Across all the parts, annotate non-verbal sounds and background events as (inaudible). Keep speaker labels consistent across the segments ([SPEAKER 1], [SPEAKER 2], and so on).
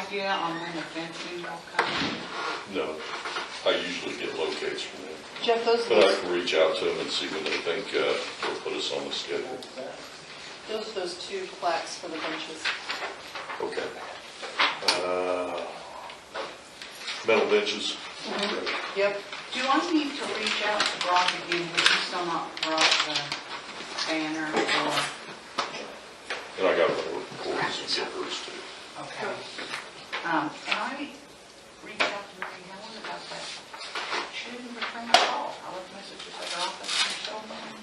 [SPEAKER 1] idea on when the fencing will come?
[SPEAKER 2] No, I usually get locates from them.
[SPEAKER 3] Jeff, those,
[SPEAKER 2] But I
[SPEAKER 3] those,
[SPEAKER 2] can reach out to them and see when they think uh, will put us on the schedule.
[SPEAKER 3] those, those two plaques for the benches.
[SPEAKER 2] Okay. Uh, Metal benches.
[SPEAKER 3] Yep,
[SPEAKER 1] Do I need to reach out to Brock again, because he's still not brought the uh, banner or,
[SPEAKER 2] And I got one of the cords and get hers too.
[SPEAKER 1] okay. Um, Can I reach out to Mary Helen about that shooting return call? I left messages at her office and so on.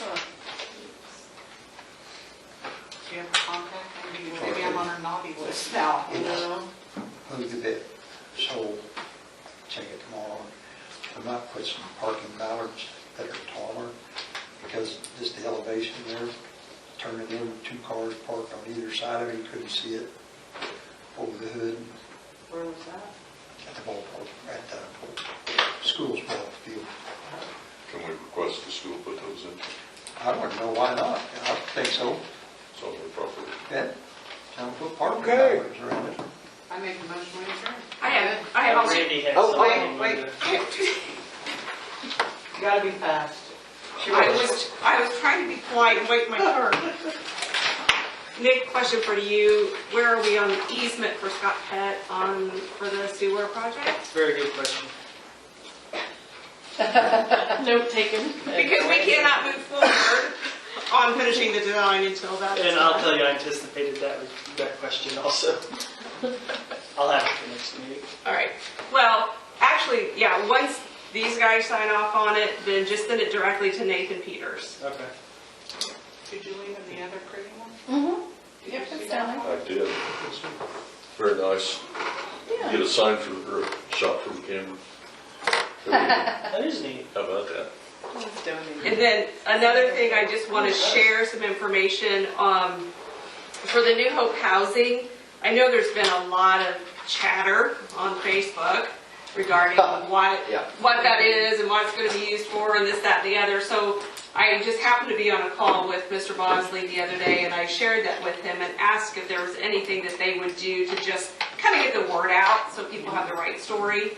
[SPEAKER 3] Huh.
[SPEAKER 1] Do you have a contact? Maybe- Maybe I'm on her naughty list now.
[SPEAKER 3] no,
[SPEAKER 4] moved a bit, so check it tomorrow. I might put some parking bollards that are taller, because just the elevation there, turning in two cars parked on either side of it, you couldn't see it over the hood
[SPEAKER 3] where was that?
[SPEAKER 4] at the ballpark, at the school's ball field.
[SPEAKER 2] Can we request the school put those in?
[SPEAKER 4] I don't know why not, I think so,
[SPEAKER 2] It's on their property.
[SPEAKER 4] yeah, time to put parking
[SPEAKER 5] Okay.
[SPEAKER 4] bollards around it.
[SPEAKER 1] I make a motion to adjourn.
[SPEAKER 6] I have, I have also.
[SPEAKER 5] Randy has
[SPEAKER 1] Oh,
[SPEAKER 5] something.
[SPEAKER 1] wait, wait. (laughs) You gotta be fast.
[SPEAKER 6] I was, I was trying to be polite and wait my turn. Nick, question for you. Where are we on the easement for Scott Pett on, for the sewer project?
[SPEAKER 5] Very good question.
[SPEAKER 3] Note taken.
[SPEAKER 6] Because we cannot move forward on finishing the design until that is
[SPEAKER 5] And I'll
[SPEAKER 6] done.
[SPEAKER 5] tell you, I anticipated that, that question also. (laughs) I'll have it for next meeting.
[SPEAKER 6] All right. Well, actually, yeah, once these guys sign off on it, then just send it directly to Nathan Peters.
[SPEAKER 5] Okay.
[SPEAKER 1] Did you leave in the other pretty one? Mm-hmm.
[SPEAKER 3] Yep, it's down there.
[SPEAKER 2] I did. Very nice. Get a sign from, or a shot from camera.
[SPEAKER 5] That is neat.
[SPEAKER 2] How about that?
[SPEAKER 6] And then another thing, I just want to share some information um, for the New Hope Housing. I know there's been a lot of chatter on Facebook regarding what, what that is and what it's going to be used for and this, that, and the other. So I just happened to be on a call with Mr. Bosley the other day and I shared that with him and asked if there was anything that they would do to just kind of get the word out so people have the right story.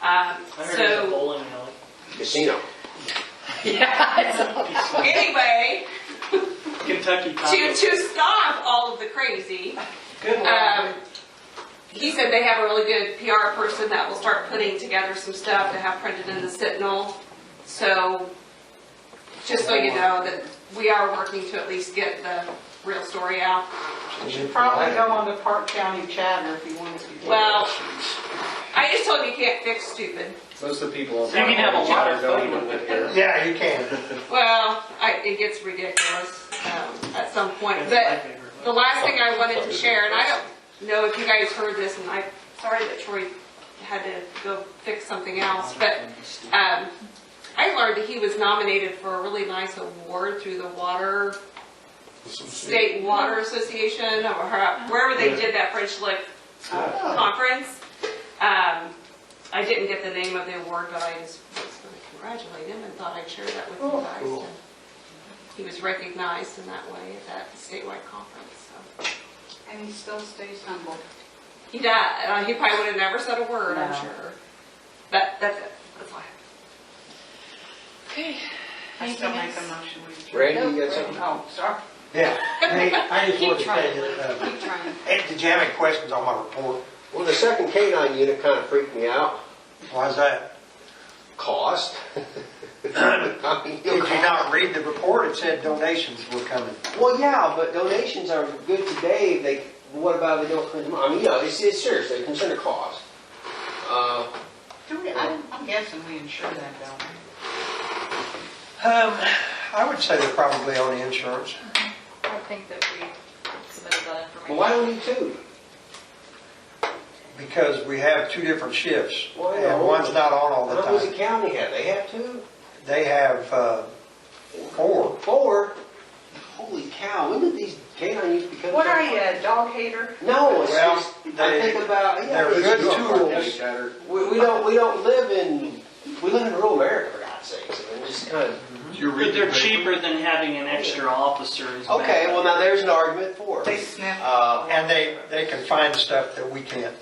[SPEAKER 6] Um,
[SPEAKER 5] I heard there's a
[SPEAKER 6] So
[SPEAKER 5] bowling alley.
[SPEAKER 7] Casino.
[SPEAKER 6] anyway,
[SPEAKER 5] (laughs) Kentucky
[SPEAKER 6] to,
[SPEAKER 5] Tacos.
[SPEAKER 6] to stop all of the crazy.
[SPEAKER 5] Good
[SPEAKER 6] Um,
[SPEAKER 5] one.
[SPEAKER 6] he said they have a really good PR person that will start putting together some stuff to have printed in the Sentinel. So, just so you know, that we are working to at least get the real story out.
[SPEAKER 1] You Probably go on the Park County chatter if you wanted to. do
[SPEAKER 6] Well, I just told him you can't fix stupid.
[SPEAKER 8] Most of the people.
[SPEAKER 5] You can have a lot of fun with it.
[SPEAKER 4] Yeah, you can.
[SPEAKER 6] Well, I, it gets ridiculous, um, at some point,
[SPEAKER 5] That's my
[SPEAKER 6] but
[SPEAKER 5] favorite one.
[SPEAKER 6] The last thing I wanted to share, and I don't know if you guys heard this, and I'm sorry that Troy had to go fix something else, but um, I learned that he was nominated for a really nice award through the Water, State Water Association, or her- wherever they did that French Lick uh, Conference. Um, I didn't get the name of the award, but I just was going to congratulate him and thought I'd share that with you guys. and He was recognized in that way at that statewide conference, so.
[SPEAKER 1] And he still stays humble.
[SPEAKER 6] He died. Uh, he probably would have never said a word,
[SPEAKER 1] No.
[SPEAKER 6] I'm sure. But that's it. That's all I have.
[SPEAKER 3] Okay.
[SPEAKER 1] I still make a
[SPEAKER 3] Anything else?
[SPEAKER 1] motion with you.
[SPEAKER 7] Randy, you got something?
[SPEAKER 1] Oh, sorry.
[SPEAKER 4] Yeah, Hey, I just want to
[SPEAKER 3] Keep trying.
[SPEAKER 4] say that, uh,
[SPEAKER 1] Keep trying.
[SPEAKER 4] hey, did you have any questions on my report?
[SPEAKER 7] Well, the second canine unit kind of freaked me out.
[SPEAKER 4] Why's that?
[SPEAKER 7] (coughs) Cost.
[SPEAKER 4] Did you not read the report? It said donations were coming.
[SPEAKER 7] Well, yeah, but donations are good today. They, what about if they don't print them? I mean, you know, it's, it's serious. They concern the cost. Uh,
[SPEAKER 1] Do we, I'm I'm guessing we insure that, don't we?
[SPEAKER 4] Um, I would say they're probably on the insurance.
[SPEAKER 3] I think that we submitted that information.
[SPEAKER 7] well, why don't you two?
[SPEAKER 4] Because we have two different shifts,
[SPEAKER 7] Well, yeah,
[SPEAKER 4] and one's not on all
[SPEAKER 7] How
[SPEAKER 4] the
[SPEAKER 7] many does
[SPEAKER 4] time.
[SPEAKER 7] the county have? They have two?
[SPEAKER 4] They have uh, four.
[SPEAKER 7] Four? Holy cow, when did these canine units become?
[SPEAKER 1] What are you, a dog hater?
[SPEAKER 7] No, it's
[SPEAKER 4] Well,
[SPEAKER 7] just, I
[SPEAKER 4] they-
[SPEAKER 7] think about, yeah.
[SPEAKER 4] They're
[SPEAKER 7] it's-
[SPEAKER 4] good tools.
[SPEAKER 7] We, we don't, we don't live in, we live in rural America, for God's God's sakes, I mean, just kind of.
[SPEAKER 2] You're
[SPEAKER 5] But
[SPEAKER 2] reading
[SPEAKER 5] they're
[SPEAKER 2] paper?
[SPEAKER 5] cheaper than having an extra officer is bad.
[SPEAKER 7] Okay, well, now there's an argument for it.
[SPEAKER 1] They sniff.
[SPEAKER 7] Uh,
[SPEAKER 4] And they, they can find stuff that we can't